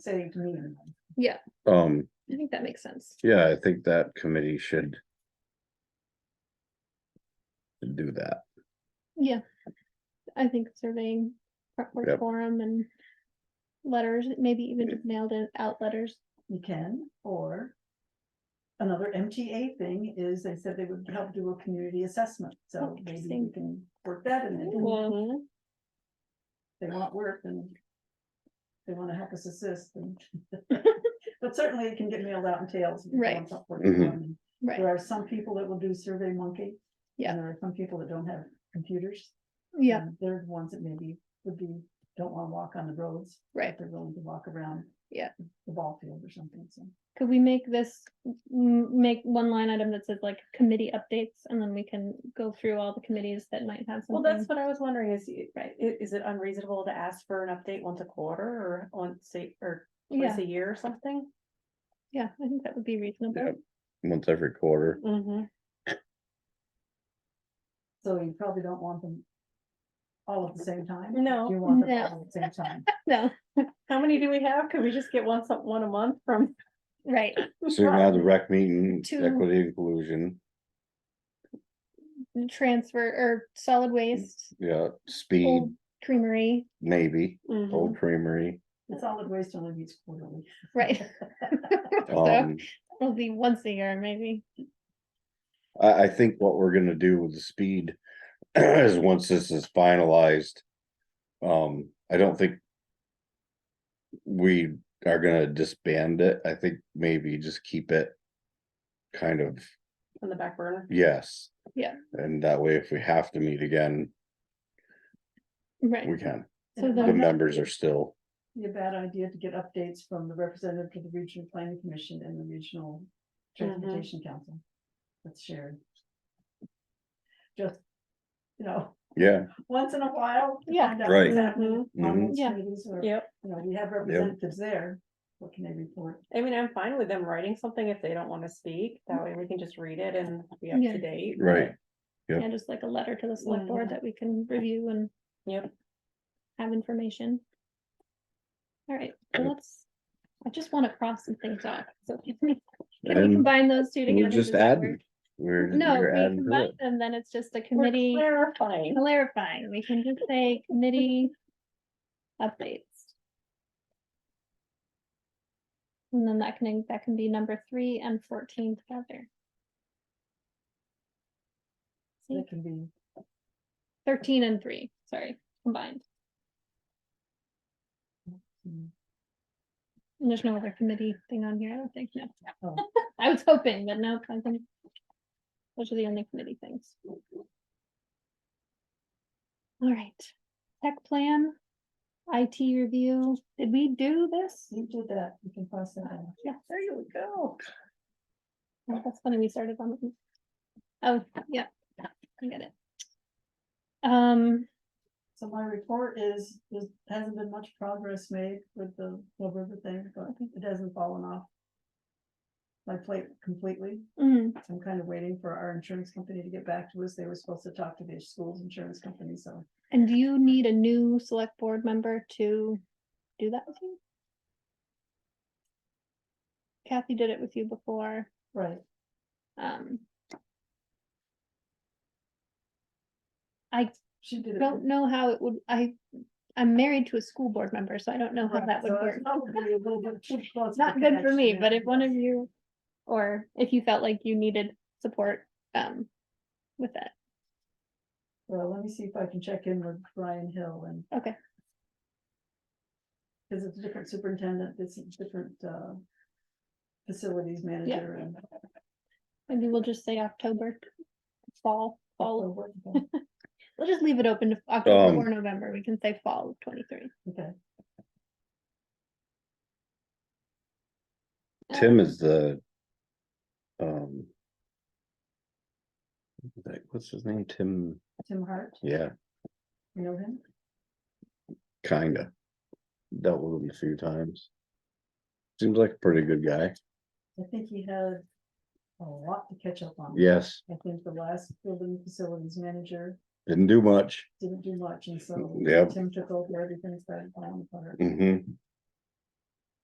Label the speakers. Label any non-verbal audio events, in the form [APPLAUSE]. Speaker 1: saved me.
Speaker 2: Um,
Speaker 3: I think that makes sense.
Speaker 2: yeah, I think that committee should. Do that,
Speaker 3: Yeah. I think surveying, prep work
Speaker 2: Yep.
Speaker 3: forum and letters, maybe even just nailed it out letters.
Speaker 1: You can, or. Another MTA thing is they said they would help do a community assessment,
Speaker 3: Oh,
Speaker 1: so maybe we
Speaker 3: interesting.
Speaker 1: can work that in. there.
Speaker 3: Mhm.
Speaker 1: They want work and. They wanna help us assist
Speaker 3: [LAUGHS]
Speaker 1: and. But certainly it can get mailed out in tails. if you
Speaker 3: Right.
Speaker 1: want something for
Speaker 2: Mhm.
Speaker 1: them. There
Speaker 3: Right,
Speaker 1: are some people that will do Survey Monkey.
Speaker 3: Yeah.
Speaker 1: There are some people that don't have computers.
Speaker 3: yeah,
Speaker 1: and They're the ones that maybe would be, don't wanna walk on the roads.
Speaker 3: right.
Speaker 1: if they're willing to walk around.
Speaker 3: Yeah.
Speaker 1: The ball field or something, so.
Speaker 3: Could we make this, m- make one line item that says like committee updates and then we can go through all the committees that might have
Speaker 4: Well,
Speaker 3: something?
Speaker 4: that's what I was wondering is, i-
Speaker 3: Right.
Speaker 4: i- is it unreasonable to ask for an update once a quarter or once a, or
Speaker 3: Yeah,
Speaker 4: twice a year or something?
Speaker 3: yeah, I think that would be reasonable.
Speaker 2: Yep. once every quarter,
Speaker 4: Mm-hmm.
Speaker 1: So you probably don't want them all at the same time?
Speaker 4: No.
Speaker 1: You want them
Speaker 3: No.
Speaker 1: all at the same time.
Speaker 3: [LAUGHS] No,
Speaker 4: How many do we have? Can we just get one, some, one a month from?
Speaker 3: right,
Speaker 2: so you have the rec meeting,
Speaker 3: Two.
Speaker 2: equity inclusion,
Speaker 3: transfer or solid waste,
Speaker 2: yeah, speed,
Speaker 3: old creamery,
Speaker 2: maybe,
Speaker 4: Mhm.
Speaker 3: Mm-hmm.
Speaker 4: [LAUGHS]
Speaker 2: old creamery.
Speaker 1: The solid waste only meets quarterly.
Speaker 3: right? So
Speaker 2: [LAUGHS] Um,
Speaker 3: [LAUGHS] it'll be once a year, maybe.
Speaker 2: I, I think what we're gonna do with the speed [CLEARS THROAT] is once this is finalized. Um, I don't think. We are gonna disband it. I think maybe just keep it. Kind of,
Speaker 4: On the back burner.
Speaker 2: yes.
Speaker 3: Yeah.
Speaker 2: And that way, if we have to meet again,
Speaker 3: Right,
Speaker 2: we can.
Speaker 3: [LAUGHS] So
Speaker 1: It
Speaker 3: the-
Speaker 2: The
Speaker 1: might
Speaker 2: members are still,
Speaker 1: Be a bad idea to get updates from the representative to the regional planning commission and the regional
Speaker 3: Uh-huh.
Speaker 1: transportation council. That's shared. Just, you know, [LAUGHS]
Speaker 2: yeah,
Speaker 1: once in a while. to
Speaker 3: Yeah.
Speaker 1: find out
Speaker 2: Right.
Speaker 1: what's happening
Speaker 2: Mhm.
Speaker 1: on those
Speaker 3: Yeah.
Speaker 1: committees or, You
Speaker 4: Yep.
Speaker 1: know, we have representatives there, what can they report?
Speaker 4: I mean, I'm fine with them writing something if they don't want to speak. That way we can just read it and be up
Speaker 3: Yeah.
Speaker 4: to date.
Speaker 2: right. Yep.
Speaker 3: yeah, just like a letter to the select board
Speaker 4: Mhm.
Speaker 3: that we can review and
Speaker 4: Yep.
Speaker 3: have information. All right, so
Speaker 2: Yep.
Speaker 3: let's, I just want to cross some things off, so [LAUGHS] can we
Speaker 2: And
Speaker 3: combine those two together?
Speaker 2: we're just
Speaker 3: Does that
Speaker 2: adding,
Speaker 3: work?
Speaker 2: we're,
Speaker 3: No,
Speaker 2: we're
Speaker 3: we
Speaker 2: adding to
Speaker 3: combine
Speaker 2: it.
Speaker 3: them, then it's just a
Speaker 4: We're
Speaker 3: committee
Speaker 4: Clarifying.
Speaker 3: clarifying, we can just say committee updates. And then that can, that can be number three and fourteen together,
Speaker 1: That can be,
Speaker 3: thirteen and three, sorry, combined.
Speaker 1: mm,
Speaker 3: And There's no other committee thing on here, I don't think, no.
Speaker 1: Oh.
Speaker 3: [LAUGHS] I was hoping, but no, I think. Those are the only committee things. All right, tech plan, IT review, did we do this?
Speaker 1: you did that, you can pass that on.
Speaker 3: Yeah,
Speaker 4: There you go.
Speaker 3: Oh, that's funny, we started on. the- Oh, yeah, I get it. Um,
Speaker 1: So my report is, is, hasn't been much progress made with the Will River thing, but it hasn't fallen off. My plate completely,
Speaker 3: mm,
Speaker 1: I'm kind of waiting for our insurance company to get back to us, they were supposed to talk to the school's insurance company, so.
Speaker 3: and do you need a new select board member to do that with you? Kathy did it with you before.
Speaker 1: Right.
Speaker 3: Um. I
Speaker 1: She did it.
Speaker 3: don't know how it would, I, I'm married to a school board member, so I don't know how
Speaker 1: Right,
Speaker 3: that would
Speaker 1: so it's
Speaker 3: work.
Speaker 1: probably a little bit too close
Speaker 3: It's
Speaker 1: of
Speaker 3: not
Speaker 1: a
Speaker 3: good for me,
Speaker 1: connection
Speaker 3: but
Speaker 1: there.
Speaker 3: if one of you, or if you felt like you needed support, um, with that,
Speaker 1: Well, let me see if I can check in with Brian Hill and.
Speaker 3: Okay.
Speaker 1: Cause it's a different superintendent, it's a different, uh. Facilities manager and.
Speaker 3: maybe we'll just say October, fall, fall,
Speaker 1: so what- what-
Speaker 3: we'll just leave it open to October
Speaker 2: Um,
Speaker 3: or November, we can say fall of twenty-three.
Speaker 1: [LAUGHS] Okay,
Speaker 2: Tim is the. Um. Like, what's his name? Tim,
Speaker 1: Tim Hart,
Speaker 2: yeah.
Speaker 1: you know him?
Speaker 2: Kinda. Dealt with him a few times. Seems like a pretty good guy.
Speaker 1: I think he had a lot to catch up on.
Speaker 2: Yes,
Speaker 1: I think the last building facilities manager
Speaker 2: didn't do much.
Speaker 1: didn't do much, and so
Speaker 2: Yep.
Speaker 1: Tim took over everything that.
Speaker 2: Mm-hmm.